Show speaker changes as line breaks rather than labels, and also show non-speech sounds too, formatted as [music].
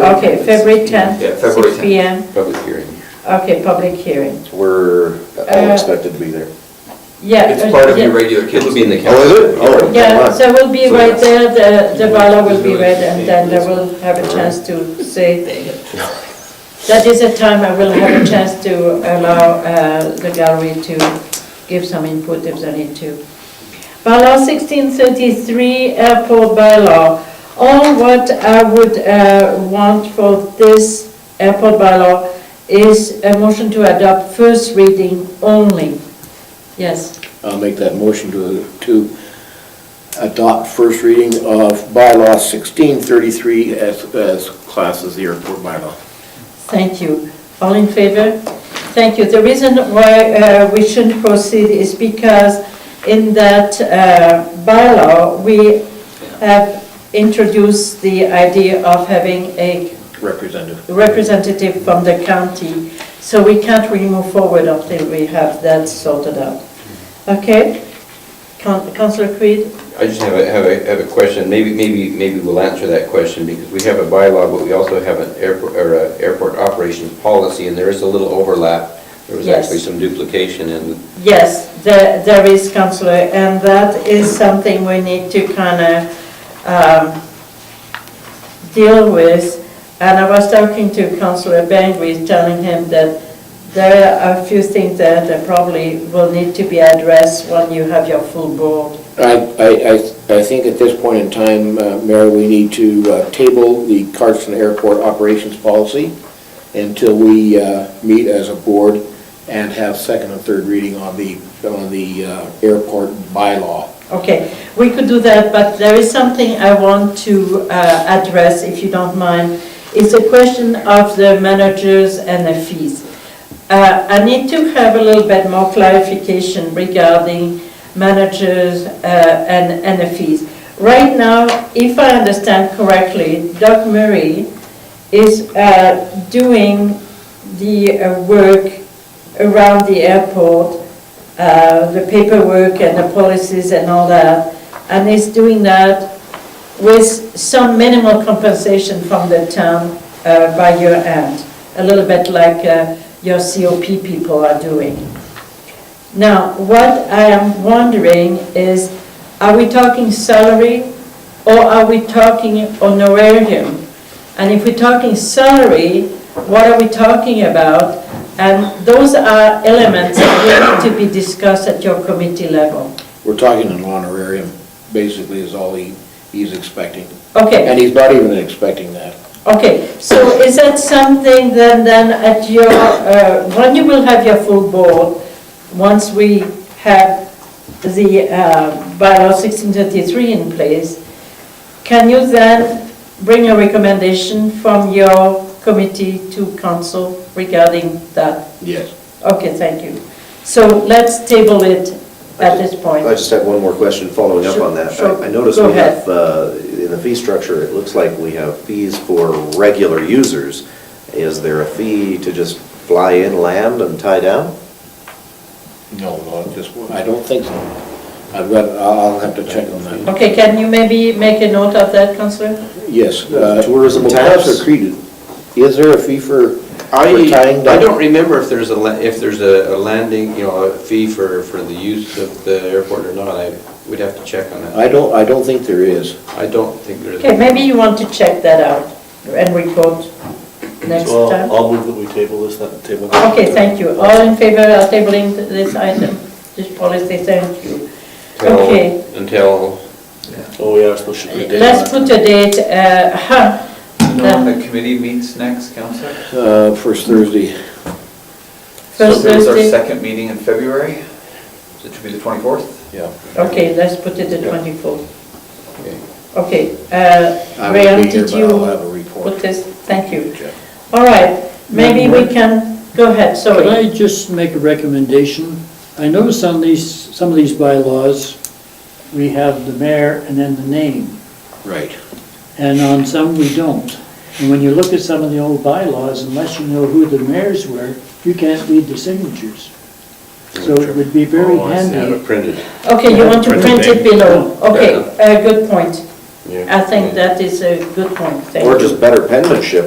Okay, February 10th.
Yeah, February
6 PM,
Public hearing. Oh,
okay, public hearing.
We're all
Uh,
expected to be there.
Yeah.
It's
uh,
part of
yeah.
your regular kids meeting.
Oh, is it? Oh.
Yeah, so we'll be
So
right
that's-
there, the, the bylaw will be
Really
read, and then I
safe,
will have a chance to say. That is a time I will have a chance to allow uh, the gallery to give some input if they need to. Bylaw 1633, airport bylaw. All what I would uh, want for this airport bylaw is a motion to adopt first reading only. Yes,
I'll make that motion to, to adopt first reading of bylaw sixteen thirty-three as, as class as the airport bylaw.
thank you. All in favor? Thank you. The reason why uh, we shouldn't proceed is because in that uh, bylaw, we have introduced the idea of having a
Representative.
representative from the county, so we can't really move forward until we have that sorted out. Okay? Coun- Councillor Creed?
I just have a, have a, have a question, maybe, maybe, maybe we'll answer that question, because we have a bylaw, but we also have an airport, or a airport operations policy, and there is a little overlap. There was
Yes.
actually some duplication in,
Yes, there there is, Councillor, and that is something we need to kind of deal with. And I was talking to Councillor Bangui, telling him that there are a few things that that probably will need to be addressed when you have your full board.
I, I, I, I think at this point in time, uh, Mayor, we need to uh, table the Carson Airport operations policy until we, uh, meet as a board and have second and third reading on the, on the, uh, airport bylaw.
Okay, we could do that, but there is something I want to uh, address, if you don't mind. It's a question of the managers and the fees. Uh, I need to have a little bit more clarification regarding managers uh, and, and the fees. Right now, if I understand correctly, Doug Murray is uh, doing the uh, work around the airport, uh, the paperwork and the policies and all that, and is doing that with some minimal compensation from the town uh, by your end, a little bit like uh, your COP people are doing. Now, what I am wondering is, are we talking salary or are we talking honorarium? And if we're talking salary, what are we talking about? And those are elements that need to be discussed at your committee level.
We're talking an honorarium, basically, is all he, he's expecting.
Okay,
And he's not even expecting that.
okay, so is that something then, then at your, uh, when you will have your full board, once we have the uh, bylaw 1633 in place, can you then bring a recommendation from your committee to council regarding that?
Yes.
Okay, thank you. So let's table it at this point.
I just have one more question following up on that.
Sure, sure.
I I noticed
Go
we have, uh, in the fee structure, it looks like we have fees for regular users. Is there a fee to just fly in, land, and tie down?
No, no, just, I don't think so. I've got, I'll I'll have to check on that.
Okay, can you maybe make a note of that, Counselor?
Yes.
Uh, tourism
well,
tax?
Counselor Creed, is there a fee for,
I,
for tying down?
I don't remember if there's a, la- if there's a a landing, you know, a fee for, for the use of the airport or not, I, we'd have to check on that.
I don't, I don't think there is.
I don't think there is.
Okay, maybe you want to check that out and report next
So I'll-
time.
I'll move that we table this, that table.
Okay, thank you. All in favor of tabling this item, this policy, thank you.
Until-
Okay.
Until,
Oh, yeah, I suppose should we?
Let's put a date, uh, [laughs] huh,
You know when the committee meets next, Counselor?
Uh, First Thursday,
first
So it was our
Thursday.
second meeting in February, so it should be the 24th?
yeah.
Okay, let's put it the 24th.
okay.
Okay, uh,
I will
Rayan,
be here,
did
but I'll
you
have a
put
report.
this? Thank you.
Check.
All right, maybe we can, go ahead,
Could
sorry.
I just make a recommendation? I noticed on these, some of these bylaws, we have the mayor and then the name,
Right.
and on some we don't. And when you look at some of the old bylaws, unless you know who the mayors were, you can't read the signatures. So it would be very
Oh, I see.
Have
handy.
it printed.
Okay, you want to
Print
print it
it.
below, okay,
Yeah.
a good point.
Yeah.
I think that is a good point, thank you.
Or just better penmanship